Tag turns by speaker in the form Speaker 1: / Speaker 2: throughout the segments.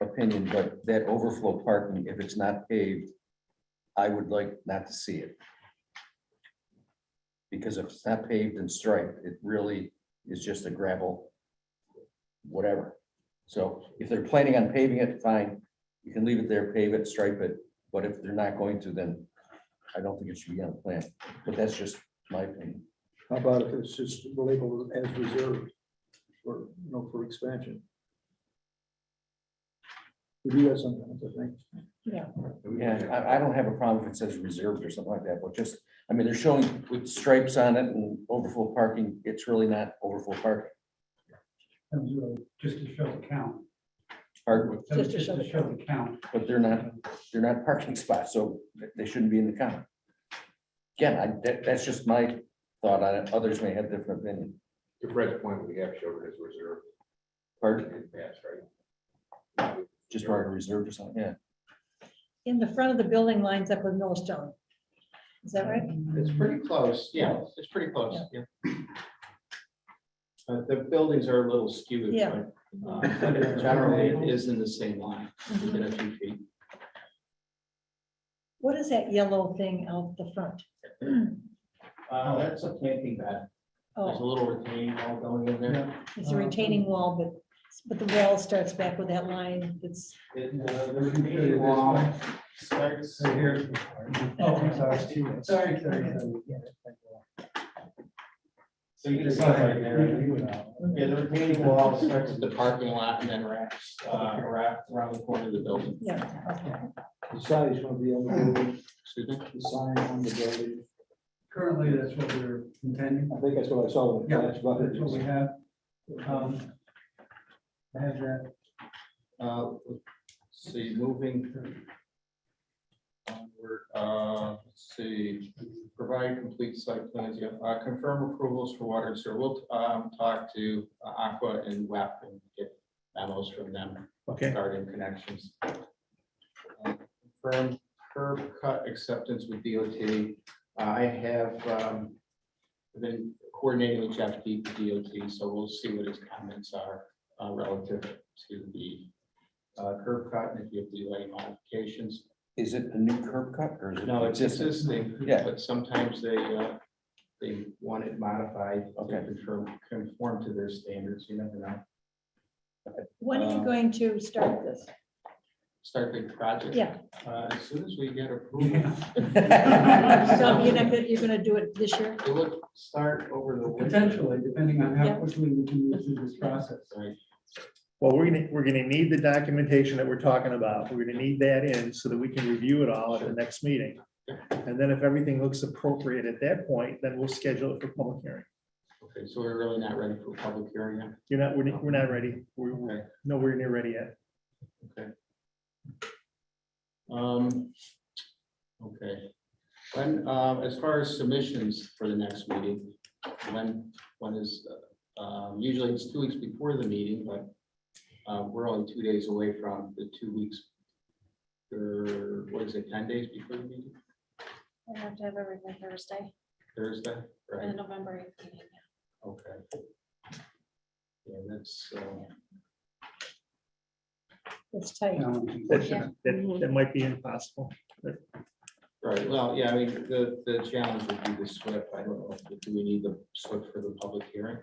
Speaker 1: opinion, but that overflow parking, if it's not paved, I would like not to see it. Because if it's not paved and striped, it really is just a gravel, whatever. So if they're planning on paving it, fine, you can leave it there, pave it, stripe it, but if they're not going to, then I don't think it should be on the plan, but that's just my opinion.
Speaker 2: How about if it's just labeled as reserved for, you know, for expansion? We do that sometimes, I think.
Speaker 1: Yeah, I, I don't have a problem if it says reserved or something like that, but just, I mean, they're showing with stripes on it and overflow parking, it's really not overflow parking.
Speaker 3: comes with, just to show the count.
Speaker 1: Or-
Speaker 3: So it's Just to show the count.
Speaker 1: But they're not, they're not parking spots, so they shouldn't be in the count. Again, I, that, that's just my thought on it, others may have different opinion.
Speaker 4: To Fred's point, we have showed it as reserve
Speaker 1: Pardon,
Speaker 4: in the past, right?
Speaker 1: just mark it reserved or something, yeah.
Speaker 5: In the front of the building lines up with Millstone. Is that right?
Speaker 6: It's pretty close, yeah, it's pretty close, yeah. Uh, The buildings are a little skewed.
Speaker 5: Yeah.
Speaker 6: but, uh, but in General, it is in the same line, within a few feet.
Speaker 5: What is that yellow thing out the front?
Speaker 6: Uh, That's a planting bed, there's a
Speaker 5: Oh,
Speaker 6: little retaining wall going in there.
Speaker 5: it's a retaining wall, but, but the wall starts back with that line that's,
Speaker 6: It, uh, The retaining wall starts,
Speaker 3: So here's. the part. Oh, I'm sorry, Steve. Sorry, sorry.
Speaker 6: so you can see right there. Yeah, the retaining wall starts at the parking lot and then wraps, uh, wraps around the corner of the building.
Speaker 5: yeah,
Speaker 2: The size will be on the building,
Speaker 6: Excuse me?
Speaker 2: the sign on the building.
Speaker 3: Currently, that's what we're intending.
Speaker 2: I think that's what I saw. when I
Speaker 3: Yeah,
Speaker 2: flashed
Speaker 3: that's
Speaker 2: by.
Speaker 3: what we have. Um, I have that.
Speaker 6: Uh, So you're moving. Onward, uh, let's see, provide complete site plans, yeah, uh, confirm approvals for water and sewer. We'll, um, talk to uh, Aqua and WEP and get memos from them
Speaker 3: Okay.
Speaker 6: regarding connections. Uh, Confirm curb cut acceptance with DOT. Uh, I have, um, been coordinating with Jeff Deep, DOT, so we'll see what his comments are, uh, relative to the uh, curb cut and if you have delay modifications.
Speaker 1: Is it a new curb cut or is it?
Speaker 6: No, it's existing,
Speaker 1: Yeah.
Speaker 6: but sometimes they, uh, they want it modified. to
Speaker 1: Okay.
Speaker 6: Conform, conform to their standards, you never know.
Speaker 5: when are you going to start this?
Speaker 6: Start the project.
Speaker 5: Yeah,
Speaker 6: uh, As soon as we get approval.
Speaker 5: so you're not, gonna- you're gonna do it this year?
Speaker 6: It would start over the. winter.
Speaker 3: Potentially, depending on how
Speaker 5: Yeah.
Speaker 3: quickly we can move through this process.
Speaker 6: Right.
Speaker 7: Well, we're gonna, we're gonna need the documentation that we're talking about. We're gonna need that in so that we can review it all at the next meeting. And then if everything looks appropriate at that point, then we'll schedule it for public hearing.
Speaker 6: Okay, so we're really not ready for public hearing yet.
Speaker 7: You're not, we're, we're not ready. We're
Speaker 6: Okay.
Speaker 7: we're nowhere near ready yet.
Speaker 6: Um, okay. When, um, as far as submissions for the next meeting, when, when is, uh, um, usually it's two weeks before the meeting, but uh, we're only two days away from the two weeks, or what is it, ten days before the meeting,
Speaker 8: I have to have everything Thursday
Speaker 6: Thursday,
Speaker 8: and
Speaker 6: right?
Speaker 8: the November eighth meeting.
Speaker 6: Okay. Yeah, that's, uh,
Speaker 5: It's tight.
Speaker 3: Um,
Speaker 7: That,
Speaker 8: Yeah.
Speaker 7: that, that might be impossible.
Speaker 6: right, well, yeah, I mean, the, the challenge would be the SWIP. I don't know, do we need the SWIP for the public hearing?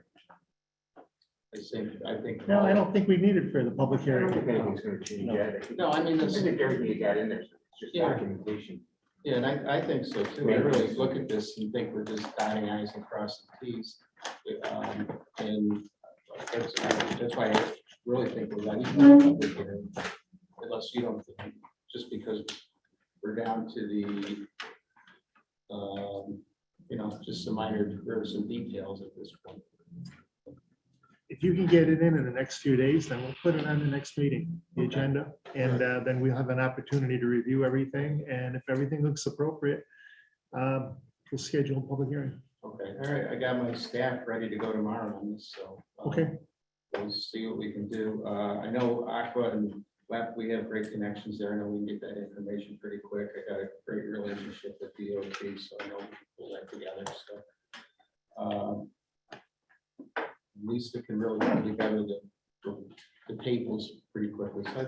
Speaker 6: I think, I think.
Speaker 7: No, I don't think we need it for the public
Speaker 4: I don't
Speaker 7: hearing.
Speaker 4: think anything's gonna change yet. I think-
Speaker 6: No, I mean,
Speaker 4: I
Speaker 6: this,
Speaker 4: think everything you got in there, is just
Speaker 6: Yeah.
Speaker 4: documentation.
Speaker 6: yeah, and I, I think so too. I really look at this and think we're just dotting i's and crossing t's. Um, And that's, that's why I really think we're not even public hearing, unless you don't, think- just because we're down to the, um, you know, just some minor, there are some details at this point.
Speaker 7: If you can get it in in the next few days, then we'll put it on the next meeting, the
Speaker 6: Okay.
Speaker 7: agenda. And uh, then we'll have an opportunity to review everything. And if everything looks appropriate, um, we'll schedule a public hearing.
Speaker 6: Okay, all right, I got my staff ready to go tomorrow on this, so. um,
Speaker 7: Okay.
Speaker 6: We'll see what we can do. Uh, I know Aqua and WEP, we have great connections there. I know we can get that information pretty quick. I got a great relationship with DOT, so I know we'll pull that together, so. um, Lisa can really put together the, the tables pretty quickly, so I think